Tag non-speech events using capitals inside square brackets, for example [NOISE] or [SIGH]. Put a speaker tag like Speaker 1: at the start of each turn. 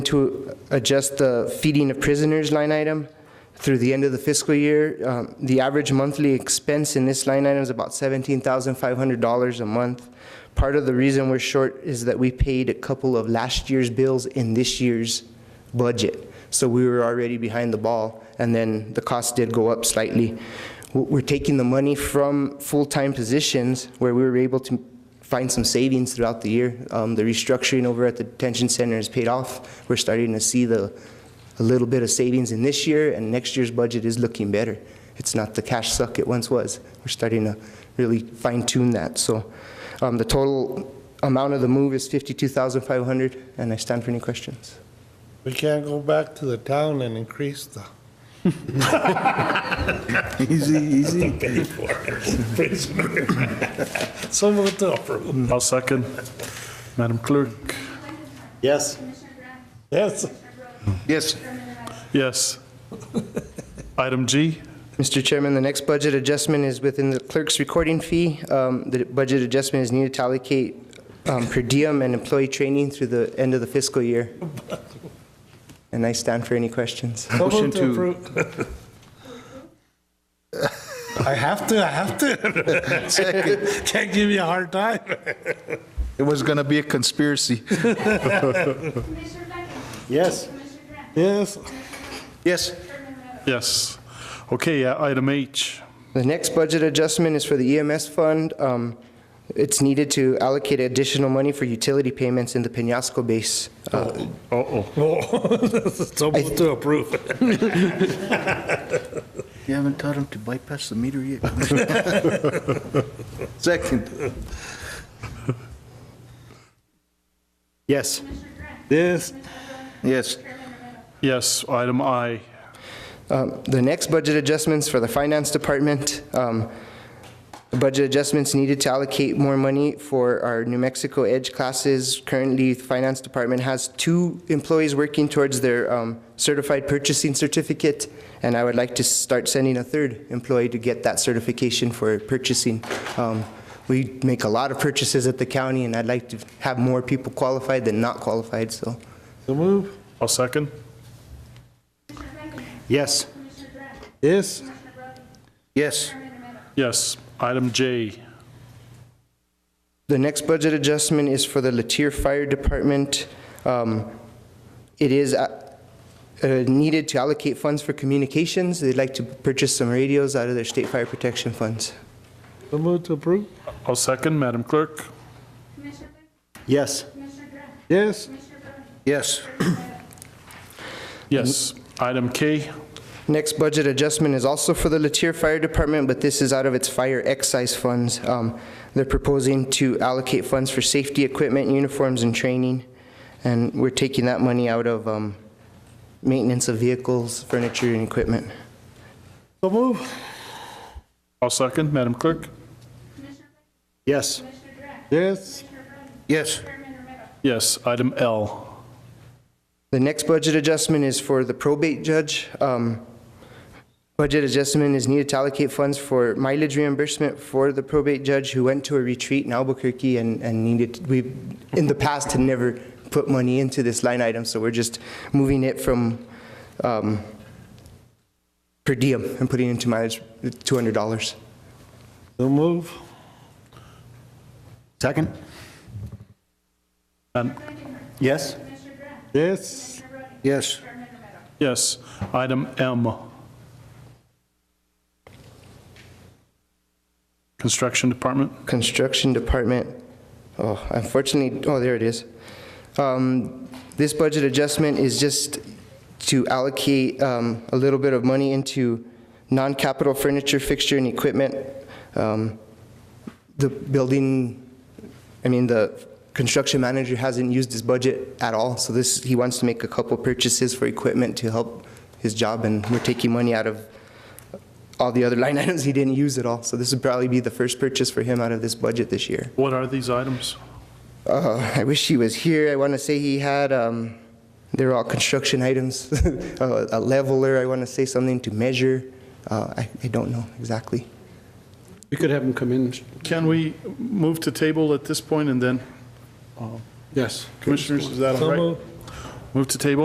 Speaker 1: to adjust the feeding of prisoners line item through the end of the fiscal year. Um, The average monthly expense in this line item is about $17,500 a month. Part of the reason we're short is that we paid a couple of last year's bills in this year's budget. So we were already behind the ball, and then the cost did go up slightly. W- We're taking the money from full-time positions where we were able to find some savings throughout the year. Um, The restructuring over at the detention center is paid off. We're starting to see the, a little bit of savings in this year, and next year's budget is looking better. It's not the cash suck it once was. We're starting to really fine tune that. So um, the total amount of the move is 52,500, and I stand for any questions.
Speaker 2: We can't go back to the town and increase the.
Speaker 3: Easy, easy.
Speaker 2: Pay for it, prisoner. So moved to approve.
Speaker 4: [LAUGHS] I'll second. Madam Clerk?
Speaker 2: Yes. Yes.
Speaker 3: Yes.
Speaker 4: Yes. Item G?
Speaker 1: Mr. Chairman, the next budget adjustment is within the clerk's recording fee. Um, The budget adjustment is needed to allocate um, per diem and employee training through the end of the fiscal year. And I stand for any questions.
Speaker 2: So
Speaker 3: Motion
Speaker 2: moved
Speaker 3: to-
Speaker 2: approve. [LAUGHS] I have to, I have to. Can't give you a hard time.
Speaker 3: It was gonna be a conspiracy.
Speaker 5: Commissioner Blackenham.
Speaker 2: Yes.
Speaker 5: Commissioner Grant.
Speaker 2: Yes.
Speaker 3: Yes.
Speaker 5: Chairman Romero.
Speaker 4: Yes. Okay, uh, item H.
Speaker 1: The next budget adjustment is for the EMS fund. Um, It's needed to allocate additional money for utility payments in the Penasco base. Uh,
Speaker 4: Uh-oh.
Speaker 2: [LAUGHS] So moved to approve.
Speaker 3: You haven't taught him to bypass the meter yet. [LAUGHS] Second. Yes.
Speaker 2: Yes.
Speaker 3: Yes.
Speaker 4: Yes, item I.
Speaker 1: Um, The next budget adjustments for the finance department, um, budget adjustments needed to allocate more money for our New Mexico Edge classes. Currently, the finance department has two employees working towards their um, certified purchasing certificate, and I would like to start sending a third employee to get that certification for purchasing. Um, We make a lot of purchases at the county, and I'd like to have more people qualified than not qualified, so.
Speaker 2: So move.
Speaker 4: I'll second.
Speaker 3: Yes.
Speaker 2: Yes.
Speaker 3: Yes.
Speaker 4: Yes. Item J.
Speaker 1: The next budget adjustment is for the Latier Fire Department. Um, It is uh, uh, needed to allocate funds for communications. They'd like to purchase some radios out of their state fire protection funds.
Speaker 2: So moved to approve.
Speaker 4: I'll second. Madam Clerk?
Speaker 5: Commissioner Blackenham.
Speaker 3: Yes.
Speaker 5: Commissioner Grant.
Speaker 2: Yes.
Speaker 5: Commissioner Romero.
Speaker 3: Yes.
Speaker 4: Yes. Item K?
Speaker 1: Next budget adjustment is also for the Latier Fire Department, but this is out of its fire excise funds. Um, They're proposing to allocate funds for safety equipment, uniforms, and training, and we're taking that money out of um, maintenance of vehicles, furniture, and equipment.
Speaker 2: So move.
Speaker 4: I'll second. Madam Clerk?
Speaker 3: Yes.
Speaker 5: Commissioner Grant.
Speaker 2: Yes.
Speaker 3: Yes.
Speaker 5: Chairman Romero.
Speaker 4: Yes. Item L.
Speaker 1: The next budget adjustment is for the probate judge. Um, Budget adjustment is needed to allocate funds for mileage reimbursement for the probate judge who went to a retreat in Albuquerque and and needed, we, in the past, had never put money into this line item, so we're just moving it from um, per diem and putting into mileage, $200.
Speaker 2: So move.
Speaker 3: Second.
Speaker 4: Um,
Speaker 3: Yes.
Speaker 5: Commissioner Grant.
Speaker 2: Yes.
Speaker 3: Yes.
Speaker 5: Chairman Romero.
Speaker 4: Yes. Item M. Construction Department?
Speaker 1: Construction Department, oh, unfortunately, oh, there it is. Um, This budget adjustment is just to allocate um, a little bit of money into non-capital furniture, fixture, and equipment. Um, The building, I mean, the construction manager hasn't used his budget at all, so this, he wants to make a couple purchases for equipment to help his job, and we're taking money out of all the other line [LAUGHS] items he didn't use at all. So this would probably be the first purchase for him out of this budget this year.
Speaker 4: What are these items?
Speaker 1: Uh, I wish he was here. I want to say he had, um, they're all construction items, [LAUGHS] Uh, a leveler, I want to say something to measure. Uh, I I don't know exactly.
Speaker 6: We could have them come in,
Speaker 4: Can we move to table at this point and then,
Speaker 6: yes.
Speaker 4: Commissioners, is that all
Speaker 2: So
Speaker 4: right?
Speaker 2: moved.
Speaker 4: Move to table?